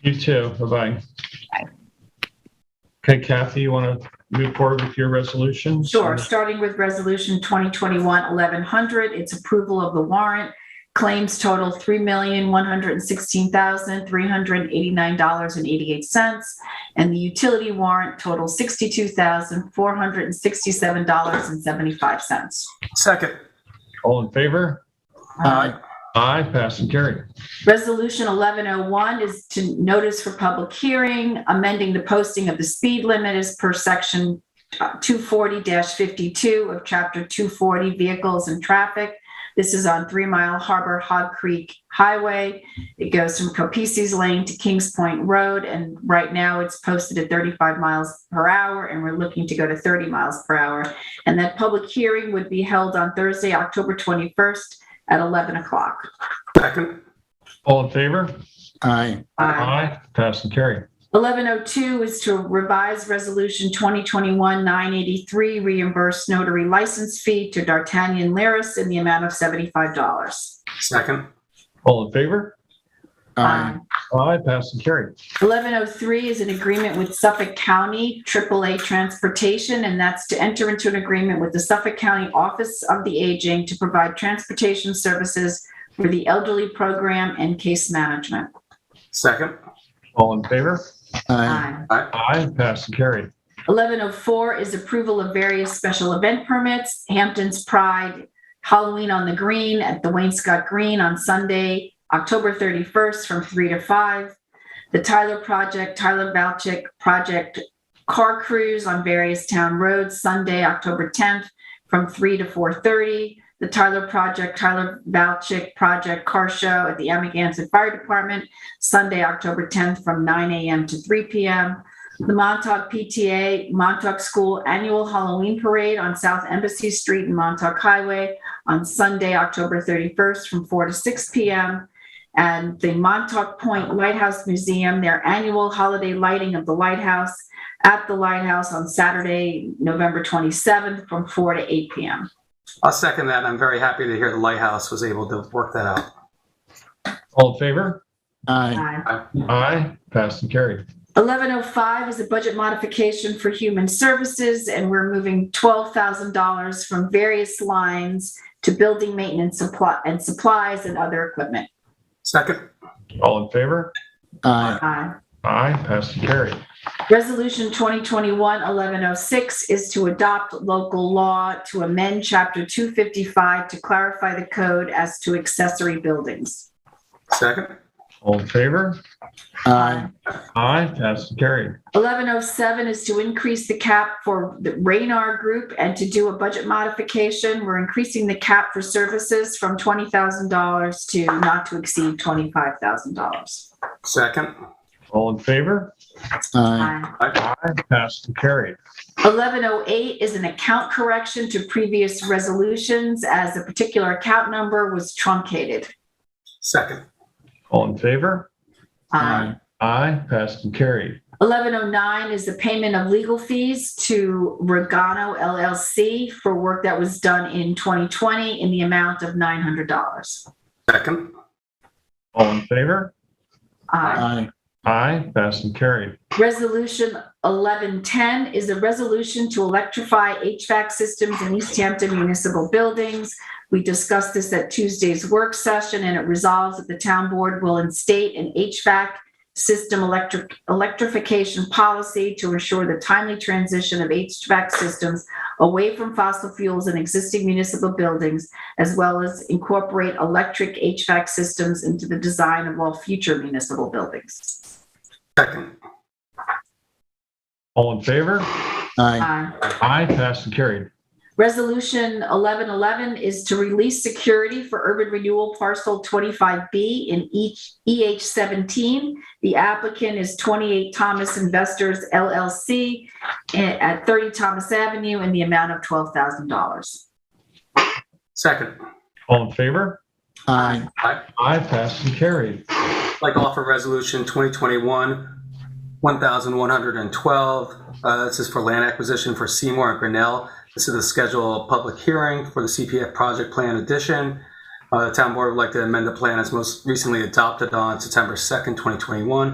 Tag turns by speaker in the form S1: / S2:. S1: You too. Bye-bye.
S2: Bye.
S1: Okay, Kathy, you want to move forward with your resolutions?
S2: Sure, starting with Resolution 2021-1100, it's approval of the warrant. Claims total $3,116,389.88. And the utility warrant total $62,467.75.
S3: Second.
S1: All in favor?
S3: Aye.
S1: Aye, pass and carry.
S2: Resolution 1101 is to notice for public hearing, amending the posting of the speed limit as per section uh, 240-52 of chapter 240 vehicles and traffic. This is on Three Mile Harbor Hog Creek Highway. It goes from Copices Lane to Kings Point Road, and right now it's posted at 35 miles per hour, and we're looking to go to 30 miles per hour. And that public hearing would be held on Thursday, October 21st at 11 o'clock.
S3: Second.
S1: All in favor?
S4: Aye.
S1: Aye, pass and carry.
S2: 1102 is to revise Resolution 2021-983, reimburse notary license fee to D'Artagnan Laris in the amount of $75.
S3: Second.
S1: All in favor?
S4: Aye.
S2: Um,
S1: Aye, pass and carry.
S2: 1103 is an agreement with Suffolk County AAA Transportation, and that's to enter into an agreement with the Suffolk County Office of the Aging to provide transportation services for the elderly program and case management.
S3: Second.
S1: All in favor?
S4: Aye.
S2: Um,
S1: Aye, pass and carry.
S2: 1104 is approval of various special event permits, Hampton's Pride, Halloween on the Green at the Wainscott Green on Sunday, October 31st from 3 to 5. The Tyler Project, Tyler Valchik Project Car Cruise on various town roads, Sunday, October 10th from 3 to 4:30. The Tyler Project, Tyler Valchik Project Car Show at the Amagansett Fire Department, Sunday, October 10th from 9 a.m. to 3 p.m. The Montauk PTA Montauk School Annual Halloween Parade on South Embassy Street and Montauk Highway on Sunday, October 31st from 4 to 6 p.m. And the Montauk Point Lighthouse Museum, their annual holiday lighting of the lighthouse at the lighthouse on Saturday, November 27th from 4 to 8 p.m.
S3: I'll second that. I'm very happy to hear the Lighthouse was able to work that out.
S1: All in favor?
S4: Aye.
S2: Aye.
S1: Aye, pass and carry.
S2: 1105 is a budget modification for human services, and we're moving $12,000 from various lines to building maintenance supply and supplies and other equipment.
S3: Second.
S1: All in favor?
S4: Aye.
S2: Aye.
S1: Aye, pass and carry.
S2: Uh, Resolution 2021-1106 is to adopt local law to amend Chapter 255 to clarify the code as to accessory buildings.
S3: Second.
S1: All in favor?
S4: Aye.
S1: Aye, pass and carry.
S2: 1107 is to increase the cap for the Radar Group and to do a budget modification. We're increasing the cap for services from $20,000 to not to exceed $25,000.
S3: Second.
S1: All in favor?
S4: Aye.
S1: Aye, pass and carry.
S2: 1108 is an account correction to previous resolutions as a particular account number was truncated.
S3: Second.
S1: All in favor?
S2: Aye.
S1: Aye, pass and carry.
S2: 1109 is the payment of legal fees to Regano LLC for work that was done in 2020 in the amount of $900.
S3: Second.
S1: All in favor?
S2: Aye.
S4: Aye.
S1: Aye, pass and carry.
S2: Resolution 1110 is a resolution to electrify HVAC systems in East Hampton municipal buildings. We discussed this at Tuesday's work session, and it resolves that the town board will instate an HVAC system electric electrification policy to ensure the timely transition of HVAC systems away from fossil fuels in existing municipal buildings, as well as incorporate electric HVAC systems into the design of all future municipal buildings.
S3: Second.
S1: All in favor?
S4: Aye.
S2: Aye.
S1: Aye, pass and carry.
S2: Resolution 1111 is to release security for urban renewal parcel 25B in E each EH17. The applicant is 28 Thomas Investors LLC eh, at 30 Thomas Avenue in the amount of $12,000.
S3: Second.
S1: All in favor?
S4: Aye.
S1: Aye, pass and carry.
S3: I'd like to offer resolution 2021 1112. Uh, this is for land acquisition for Seymour and Grinnell. This is the scheduled public hearing for the CPF project plan addition. Uh, the town board would like to amend the plan as most recently adopted on September 2nd, 2021